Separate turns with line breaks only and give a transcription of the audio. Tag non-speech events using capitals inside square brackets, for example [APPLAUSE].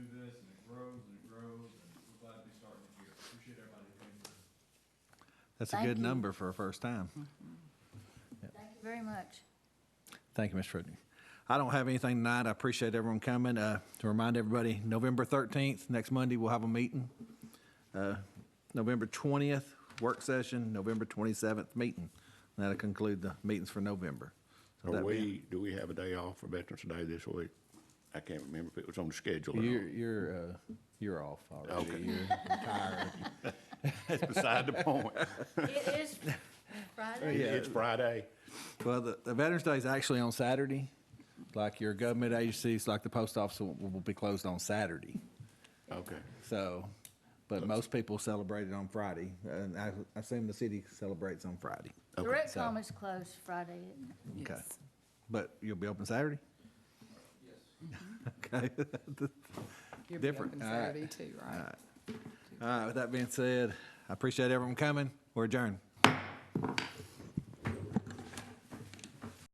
That's a
Thank
good
you.
number for a first time.
Thank you very much.
Thank you, Ms. Fruitner. I don't have anything tonight. I appreciate everyone coming. Uh, To remind everybody, November 13th, next Monday, we'll have a meeting. Uh, November 20th, work session, November 27th, meeting. And That'll conclude the meetings for November. So
Are
that'd be-
we, do we have a day off for Veterans Day this week? I can't remember if it was on the schedule or
You're,
not.
you're, uh, you're off already.
Okay.
You're retired.
[LAUGHS] That's beside the point.
It is Friday.
It's Friday.
Well, the, the Veterans Day is actually on Saturday. Like your government agencies, like the post office will, will be closed on Saturday.
Okay.
So, but most people celebrate it on Friday, and I I assume the city celebrates on Friday.
The rec
so-
com is closed Friday, isn't it?
Okay. But you'll be open Saturday? Yes. [LAUGHS] Okay.
You'll be
Different.
open
All right.
Saturday too, right?
All right, with that being said, I appreciate everyone coming. We're adjourned.